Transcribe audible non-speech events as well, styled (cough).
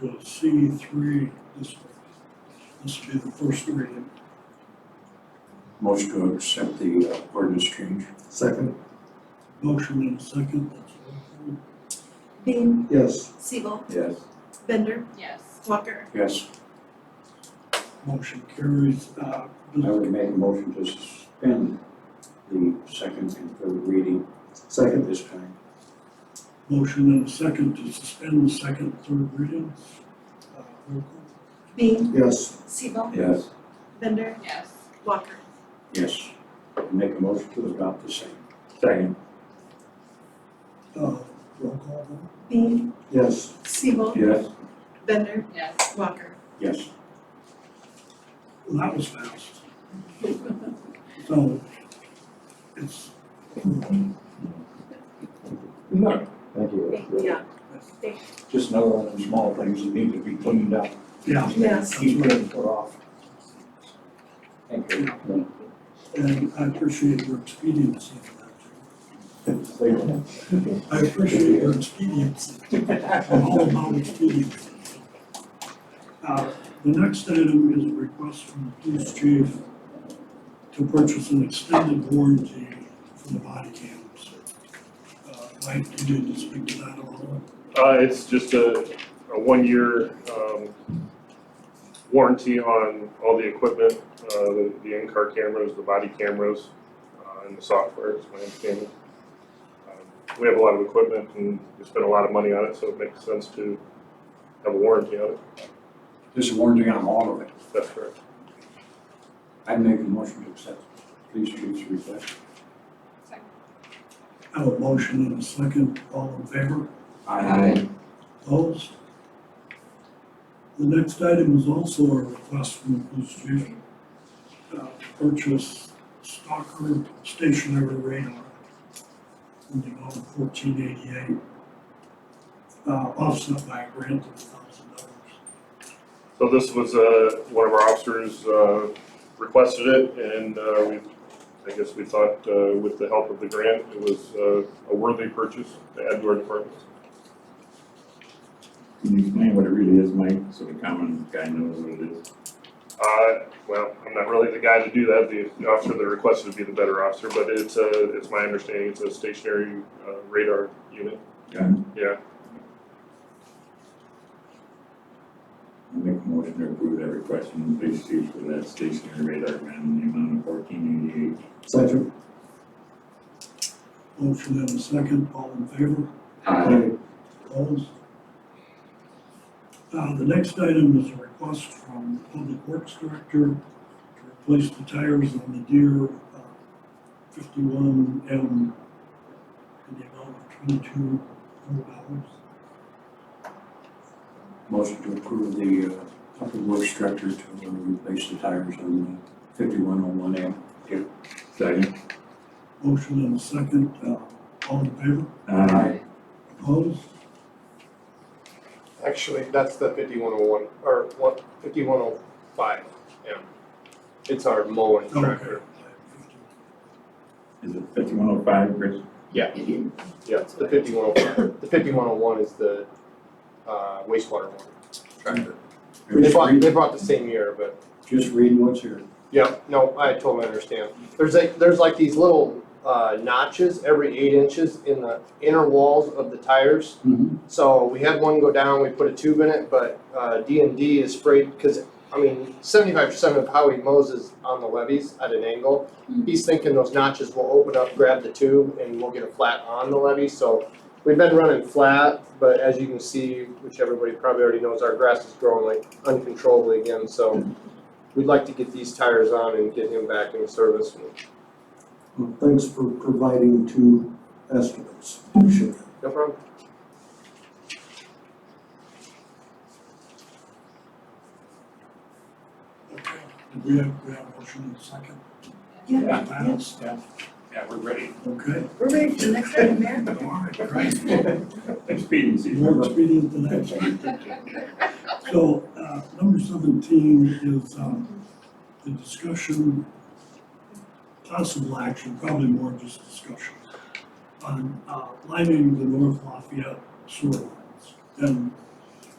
the C three district. This would be the first reading. Motion to accept the uh, ordinance change. Second. Motion and a second, that's all. Beam, Yes. Siebel, Yes. Bender, yes, Walker. Yes, Motion carries, uh, I would make a motion to suspend the second and third reading at Second. this time. motion and a second to suspend the second, and third readings. Uh, roll call. Beam, Yes. Siebel, Yes. Bender, yes, Walker. Yes, make a motion to adopt the same. Second. Uh, roll call vote. Beam, Yes. Siebel, Yes. Bender, yes, Walker. Yes, Well, that was fast. So, it's, no, Thank Yeah. just another one of them small things that need to be cleaned up. yeah, Yes. Keep putting put off. Thank you. and I appreciate your expediency for that. too. Thank you. I appreciate your expediency. (laughs) I'm all about expediency. Uh, the next item is a request from the police chief to purchase an extended warranty for the body cams. Uh, Mike, you need to speak to that a little. Uh, it's just a, a one-year, um, warranty on all the equipment, uh, the, the in-car cameras, the body cameras, uh, and the software, is my understanding. Um, We have a lot of equipment and we spend a lot of money on it, so it makes sense to have a warranty on it, This is warranty on all of it. that's correct. I make a motion to accept police chief's request. second, I have a motion and a second, all in favor? Aye. Opposed? The next item is also a request from the police chief uh, to purchase Stalker stationary radar in the amount of fourteen eighty-eight, Uh, offset by a grant of thousand dollars. So this was, uh, one of our officers, uh, requested it and, uh, we, I guess we thought, uh, with the help of the grant, it was, uh, a worthy purchase to add to our department. Can you explain what it really is, Mike, so the common guy knows what it is? Uh, well, I'm not really the guy to do that, the the officer that requested would be the better officer, but it's a, it's my understanding, it's a stationary uh, radar unit. Got it? Yeah, I make a motion to approve that request from the police chief for that stationary radar gun in the amount of fourteen Second. Motion and a second, all in favor? Aye. Opposed? Uh, the next item is a request from the Public Works Director to replace the tires on the Deer fifty-one M in the amount of twenty-two hundred dollars. Motion to approve the uh, public work structure to uh, replace the tires on the fifty-one oh one M. eighty-eight. Second? Motion and a second, uh, all in favor? Aye. Opposed? Actually, that's the fifty-one oh one, or one, fifty-one oh five, yeah. It's our mowing tractor. Okay. Is it fifty-one oh five, Chris? Yeah. Yeah, it's the fifty-one oh five. The fifty-one oh one is the, uh, wastewater one tractor. They Just bought, read, they bought the same year, but, just read what's here. yeah, no, I totally understand. There's like, there's like these little, uh, notches every eight inches in the inner walls of the tires. Mm-hmm. So we had one go down, we put a tube in it, but uh, D and D is sprayed, because, I mean, seventy-five percent of how he mows is on the levees at an angle. He's thinking those notches will open up, grab the tube, and we'll get a flat on the levee, so we've been running flat, but as you can see, which everybody probably already knows, our grass is growing like uncontrollably again, so we'd like to get these tires on and get him back in service. Well, Thanks for providing two estimates. Appreciate it. No problem. Okay, Did we have, we have motion and a second? Yeah. Balance? Yeah, we're ready. Okay. We're ready for the next item, Mayor. All right, great. Expediency. More expedient than that. So, uh, number seventeen is, um, the discussion, possible action, probably more just discussion, on, uh, lining the North Lafayette sewer lines. And